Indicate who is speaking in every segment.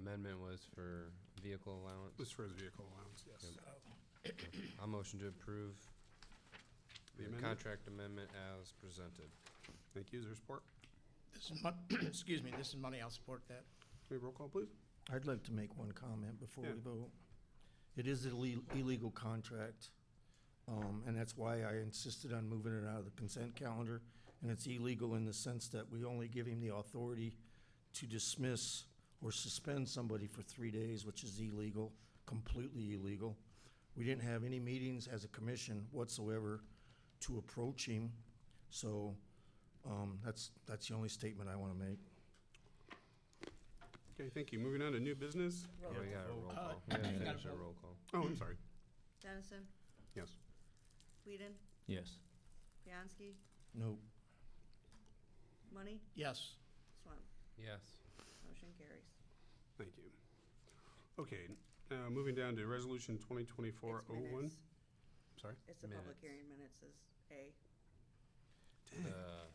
Speaker 1: amendment was for vehicle allowance.
Speaker 2: was for his vehicle allowance, yes.
Speaker 1: I'll motion to approve
Speaker 2: The
Speaker 1: the
Speaker 2: amendment?
Speaker 1: contract amendment as presented.
Speaker 2: Thank you. Is there support?
Speaker 3: This is mon, excuse me, this is money, I'll support that.
Speaker 2: May roll call, please?
Speaker 4: I'd like to make one comment before
Speaker 2: Yeah.
Speaker 4: we vote. It is an ille- illegal contract, um, and that's why I insisted on moving it out of the consent calendar. And it's illegal in the sense that we only give him the authority to dismiss or suspend somebody for three days, which is illegal, completely illegal. We didn't have any meetings as a commission whatsoever to approach him, so um, that's, that's the only statement I want to make.
Speaker 2: Okay, thank you. Moving on to new business.
Speaker 1: Yeah, we got a roll
Speaker 3: Uh,
Speaker 1: call. We gotta
Speaker 3: you gotta
Speaker 1: finish our
Speaker 3: vote.
Speaker 1: roll call.
Speaker 2: Oh, I'm sorry.
Speaker 5: Dennison,
Speaker 2: Yes.
Speaker 5: Whedon,
Speaker 6: Yes.
Speaker 5: Bianski,
Speaker 4: No,
Speaker 5: Money,
Speaker 3: Yes,
Speaker 5: Swam.
Speaker 1: Yes.
Speaker 5: Motion carries.
Speaker 2: Thank you. Okay, now moving down to resolution twenty twenty-four
Speaker 5: It's
Speaker 2: oh one.
Speaker 5: minutes.
Speaker 2: Sorry?
Speaker 5: It's the public
Speaker 1: Minutes.
Speaker 5: hearing minutes is A.
Speaker 1: The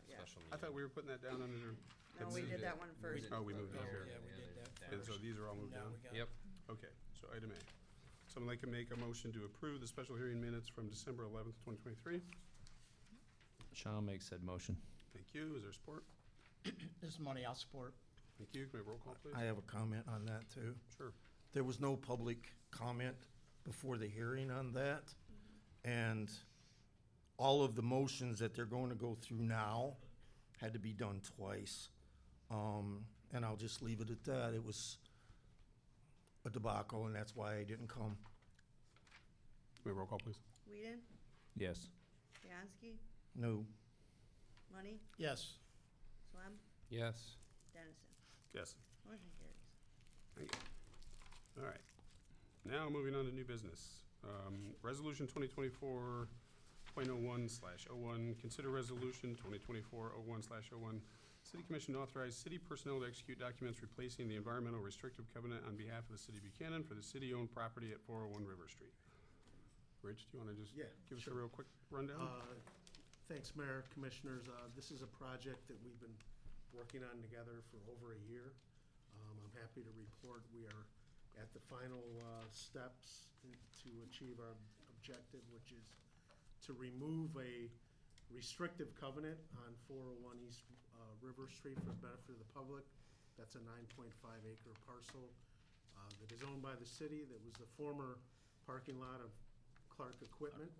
Speaker 5: Yeah.
Speaker 1: special meeting.
Speaker 2: I thought we were putting that down under,
Speaker 5: No,
Speaker 2: It's-
Speaker 5: we
Speaker 2: we
Speaker 5: did
Speaker 1: did.
Speaker 5: that one first.
Speaker 2: oh, we moved it up
Speaker 3: Yeah,
Speaker 2: here.
Speaker 3: yeah, we did that
Speaker 2: And so
Speaker 3: first.
Speaker 2: these are all moved
Speaker 3: now we
Speaker 2: down?
Speaker 3: got.
Speaker 1: Yep,
Speaker 2: Okay, so item A. Someone like to make a motion to approve the special hearing minutes from December eleventh, twenty twenty-three?
Speaker 6: Shall make said motion.
Speaker 2: Thank you. Is there support?
Speaker 3: This is money, I'll support.
Speaker 2: Thank you. Can we roll call, please?
Speaker 4: I have a comment on that, too.
Speaker 2: Sure.
Speaker 4: There was no public comment before the hearing on that. And all of the motions that they're going to go through now had to be done twice. Um, and I'll just leave it at that. It was a debacle, and that's why I didn't come.
Speaker 2: Can we roll call, please?
Speaker 5: Whedon,
Speaker 6: Yes.
Speaker 5: Bianski,
Speaker 4: No,
Speaker 5: Money,
Speaker 3: Yes,
Speaker 5: Swam,
Speaker 1: yes.
Speaker 5: Dennison.
Speaker 2: Yes.
Speaker 5: Motion carries.
Speaker 2: Thank you. All right. Now, moving on to new business. Um, Resolution 2024.01 slash 01, consider resolution 2024-01 slash 01. City Commission to authorize city personnel to execute documents replacing the environmental restrictive covenant on behalf of the city of Buchanan for the city-owned property at 401 River Street. Rich, do you want to just
Speaker 7: Yeah,
Speaker 2: give us a
Speaker 7: sure.
Speaker 2: real quick rundown?
Speaker 7: Uh, Thanks, Mayor, Commissioners. Uh, This is a project that we've been working on together for over a year. Um, I'm happy to report we are at the final uh, steps in- to achieve our objective, which is to remove a restrictive covenant on 401 East uh, River Street for the benefit of the public. That's a 9.5 acre parcel uh, that is owned by the city, that was the former parking lot of Clark Equipment.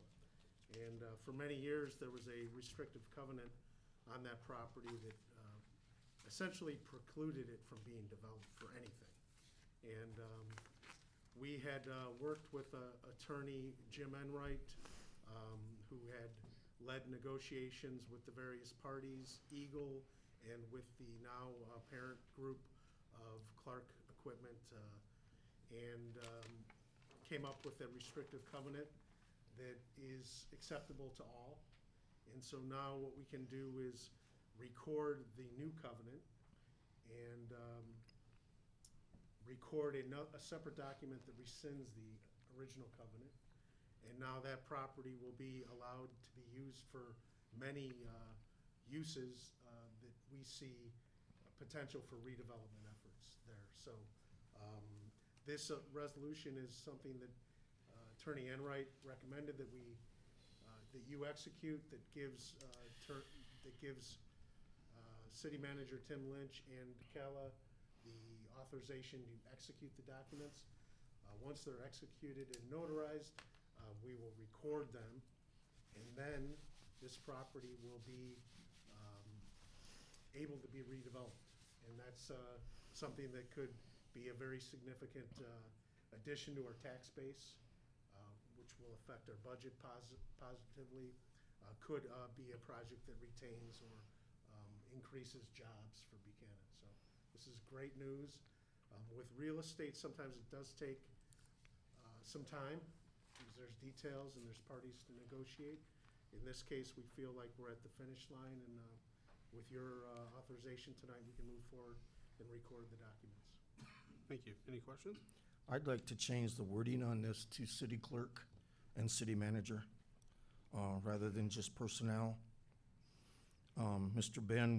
Speaker 7: And uh, for many years, there was a restrictive covenant on that property that um, essentially precluded it from being developed for anything. And um, we had uh, worked with uh, attorney Jim Enright, um, who had led negotiations with the various parties, Eagle, and with the now uh, parent group of Clark Equipment, uh, and um, came up with a restrictive covenant that is acceptable to all. And so now what we can do is record the new covenant and um, record a, no- a separate document that rescinds the original covenant. And now that property will be allowed to be used for many uh, uses uh, that we see potential for redevelopment efforts there. So um, this uh, resolution is something that uh, Attorney Enright recommended that we, uh, that you execute, that gives, uh, tur- that gives uh, City Manager Tim Lynch and Kala the authorization to execute the documents. Uh, Once they're executed and notarized, uh, we will record them, and then this property will be um, able to be redeveloped. And that's uh, something that could be a very significant uh, addition to our tax base, uh, which will affect our budget posi- positively, uh, could uh, be a project that retains or um, increases jobs for Buchanan. So this is great news. Um, With real estate, sometimes it does take uh, some time, because there's details and there's parties to negotiate. In this case, we feel like we're at the finish line, and uh, with your uh, authorization tonight, we can move forward and record the documents.
Speaker 2: Thank you. Any questions?
Speaker 4: I'd like to change the wording on this to city clerk and city manager, uh, rather than just personnel. Um, Mr. Ben